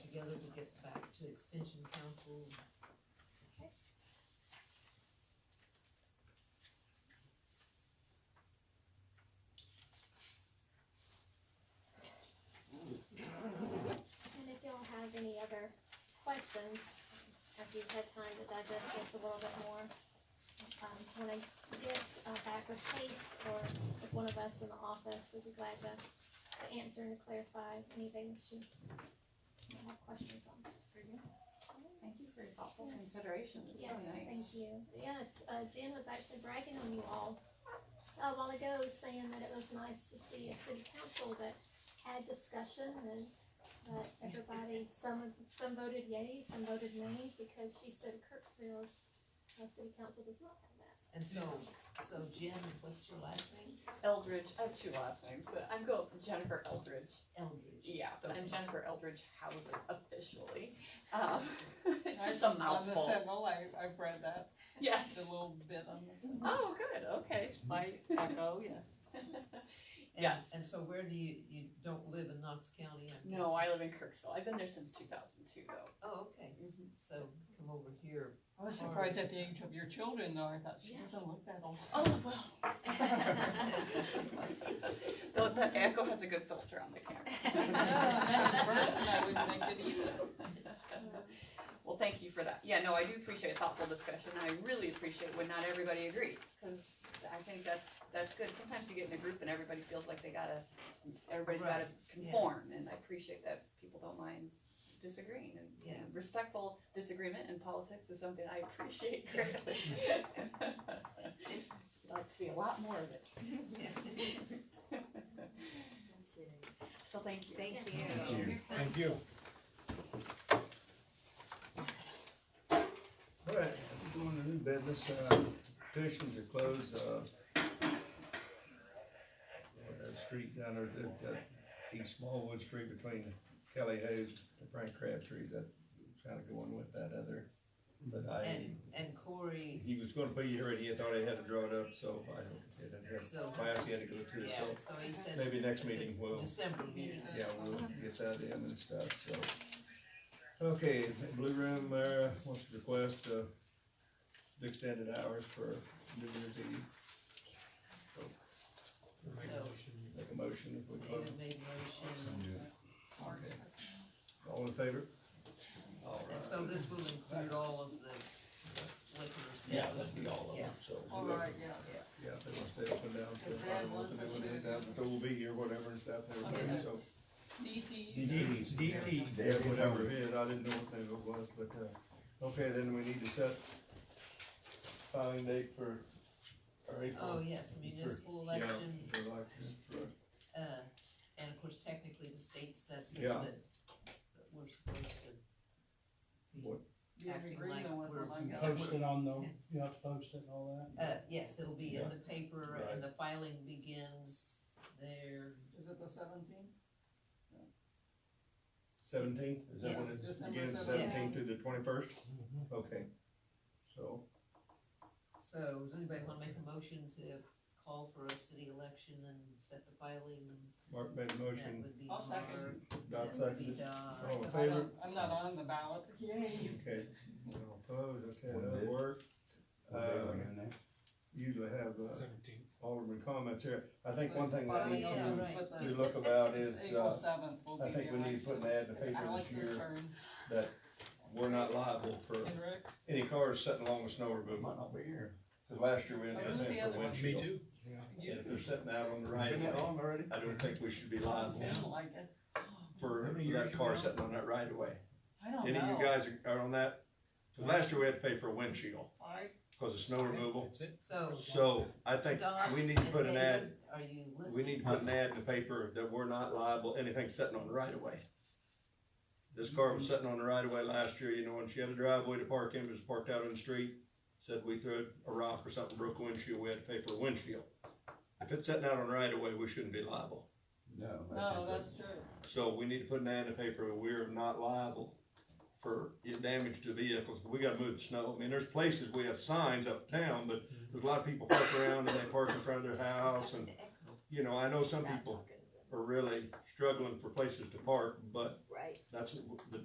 together to get back to extension council. And if y'all have any other questions, after you've had time to digest this a little bit more, um, when I get uh, back with Chase or with one of us in the office, we'd be glad to to answer and to clarify anything that you might have questions on. Thank you for your thoughtful consideration, it's so Yes, thank nice. you. Yes, uh, Jen was actually bragging on you all uh, a while ago, saying that it was nice to see a city council that had discussion and that everybody, some, some voted yay, some voted nay, because she said Kirksville's, uh, city council does not have that. And so, so Jen, what's your last name? Eldridge, I have two last names, but I'm going with Jennifer Eldridge. Eldridge. Yeah, but I'm Okay. Jennifer Eldridge Houser officially. Um, it's I just s- a mouthful. On the symbol, I, I've read that, Yes. the little bit on the symbol. Oh, good, okay. My echo, yes. And- Yes. And so where do you, you don't live in Knox County? I'm No, guessing? I live in Kirksville. I've been there since two thousand two though. Oh, okay, Mm-hmm. so come over here. I was surprised at the age of your children though, I thought she Yeah. doesn't look that old. Oh, well. The, the echo has a good filter on the Yeah, camera. Person, I wouldn't think it either. Well, thank you for that. Yeah, no, I do appreciate thoughtful discussion. I really appreciate when not everybody agrees, because I think that's, that's good. Sometimes you get in a group and everybody feels like they gotta, everybody's gotta conform, and I appreciate that people don't mind disagreeing. and- Yeah. And respectful disagreement in politics is something I appreciate greatly. I'd like to see a lot more of it. So thank you. Thank you. uh, Thank you. Thank you. All right, going to new business, uh, petitions are closed, uh, on that street down there, that, that East Smallwood Street between Kelly Hayes and Frank Crabtree's, that, trying to go on with that other, but I, And, and Corey, he was gonna be here and he thought he had to draw it up, so I didn't So- have class he had to go to, yeah, so so he said. maybe next meeting we'll. December meeting. Yeah, we'll get that in and stuff, so. Okay, Blue Room, uh, wants to request, uh, extended hours for New Year's Eve. So Make a motion if we close. David made a motion, Okay. All in favor? All and right. so this will include all of the liquor Yeah, that'd be all of Yeah. them, so. All right, yes. Yeah, if they wanna stay open down till five, or if they wanna end down till we'll be here, whatever and stuff, everything, so. DTs. DTs, DTs, yeah, whatever it is, I didn't know what they it was, but, uh, okay, then we need to set filing date for our Oh, April. yes, municipal Yeah, election, for election, for- uh, and of course technically the state sets it, Yeah. but, but we're supposed to be, What? You have Acting agreement like with we're- them, I guess. Post it on the, you have to post it and all that. uh, yes, it'll be in Yeah. the paper and the filing begins there. Is it the seventeenth? Seventeenth, is that when Yes, it December begins, 17th. seventeenth through the twenty-first? Okay, so, So, does anybody wanna make a motion to call for a city election and set the filing? Mark made a That motion, would be I'll second. Mark, Dot that would be seconded, Oh. Doc. all in Cause I favor? don't, I'm not on the ballot, yay. Okay, no opposed, okay, One that'll bid. work. Uh, usually have, uh, Seventeenth. Alderman comments here, I think one thing But we I need know to Yeah. it's with the- we look about it's is, April uh, seventh, we'll be I there. think we need to put an ad in the It's paper this Alex's year turn, that we're not liable for and Rick, any cars sitting along the snow removal. Might not be here. Cause last year we ended Who's up the paying other for one? windshield. Me too. And you, if they're sitting out on the right, of way, already? I don't think we should be doesn't liable sound like it. for How many years that car ago? sitting on that right away. I don't know. Any of you guys are- are on that? 'Cause Last year we had to pay for a windshield I, because of snow removal. That's it. So, So I think Doc we need to and put an ad, David, Are you listening? we need to put an ad in the paper that we're not liable, anything sitting on the right of way. This car was sitting on the right of way last year, you know, and she had a driveway to park in, it was parked out in the street. Said we threw a rock or something, broke a windshield, we had to pay for a windshield. If it's sitting out on the right of way, we shouldn't be liable. No, no, that's Oh, that's just, true. So we need to put an ad in the paper, that we're not liable for damage to vehicles, but we gotta move the snow. I mean, there's places we have signs up town, but there's a lot of people park around and they park in front of their house and, you know, I know some people are really struggling for places to park, but Right. that's the